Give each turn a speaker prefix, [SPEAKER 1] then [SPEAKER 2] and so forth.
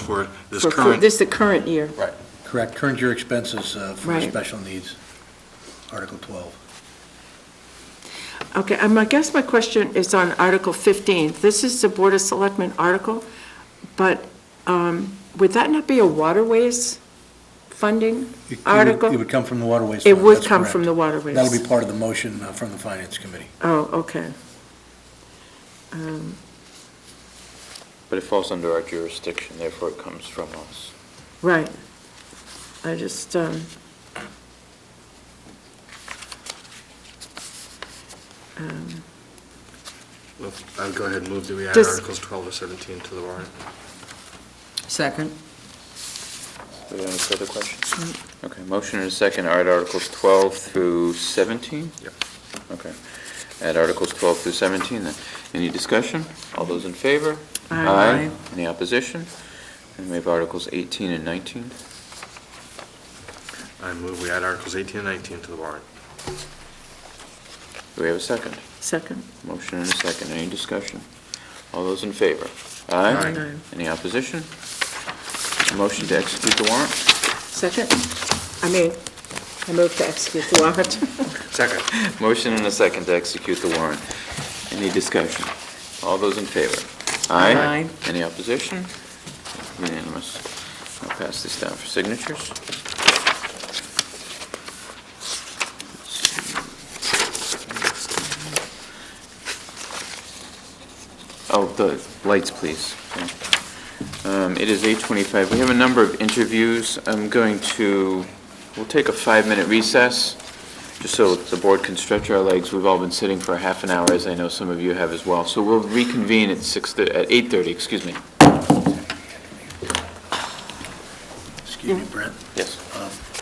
[SPEAKER 1] for this
[SPEAKER 2] for- for-
[SPEAKER 1] current.
[SPEAKER 2] This is the current year.
[SPEAKER 3] Correct, current year expenses uh, for
[SPEAKER 2] Right.
[SPEAKER 3] special needs, Article 12.
[SPEAKER 2] Okay, um, I guess my question is on Article 15. This is the Board of Selectmen article, but um, would that not be a waterways funding
[SPEAKER 3] It- it would- It
[SPEAKER 2] article?
[SPEAKER 3] would come from the waterways.
[SPEAKER 2] It
[SPEAKER 3] fund,
[SPEAKER 2] would
[SPEAKER 3] that's
[SPEAKER 2] come from
[SPEAKER 3] correct.
[SPEAKER 2] the waterways.
[SPEAKER 3] That'll be part of the motion uh, from the Finance Committee.
[SPEAKER 2] Oh, okay. Um,
[SPEAKER 4] But it falls under our jurisdiction, therefore it comes from us.
[SPEAKER 2] Right. I just, um, um,
[SPEAKER 1] I would go ahead and move that we add
[SPEAKER 2] Does-
[SPEAKER 1] Articles 12 or 17 to the warrant.
[SPEAKER 5] Second.
[SPEAKER 4] Do we have any further questions?
[SPEAKER 2] Mm-hmm.
[SPEAKER 4] Okay, motion and a second, add Articles 12 through 17?
[SPEAKER 1] Yep.
[SPEAKER 4] Okay. Add Articles 12 through 17, then. Any discussion? All those in favor?
[SPEAKER 2] Aye.
[SPEAKER 4] Any opposition? And we have Articles 18 and 19.
[SPEAKER 1] I move we add Articles 18 and 19 to the warrant.
[SPEAKER 4] Do we have a second?
[SPEAKER 2] second.
[SPEAKER 4] Motion and a second, any discussion? All those in favor?
[SPEAKER 1] Aye.
[SPEAKER 2] Aye.
[SPEAKER 4] Any opposition? Motion to execute the warrant?
[SPEAKER 2] Second? I mean, I move to execute the warrant.
[SPEAKER 1] Second.
[SPEAKER 4] Motion and a second to execute the warrant. Any discussion? All those in favor?
[SPEAKER 5] Aye.
[SPEAKER 4] Any opposition? Unanimous. I'll pass this down for signatures. Oh, the lights, please. Um, It is 8:25. We have a number of interviews. I'm going to, we'll take a five-minute recess, just so the board can stretch our legs. We've all been sitting for a half an hour, as I know some of you have as well. So we'll reconvene at 6, at 8:30, excuse me.
[SPEAKER 3] Excuse me, Brent.
[SPEAKER 4] Yes.
[SPEAKER 3] Um,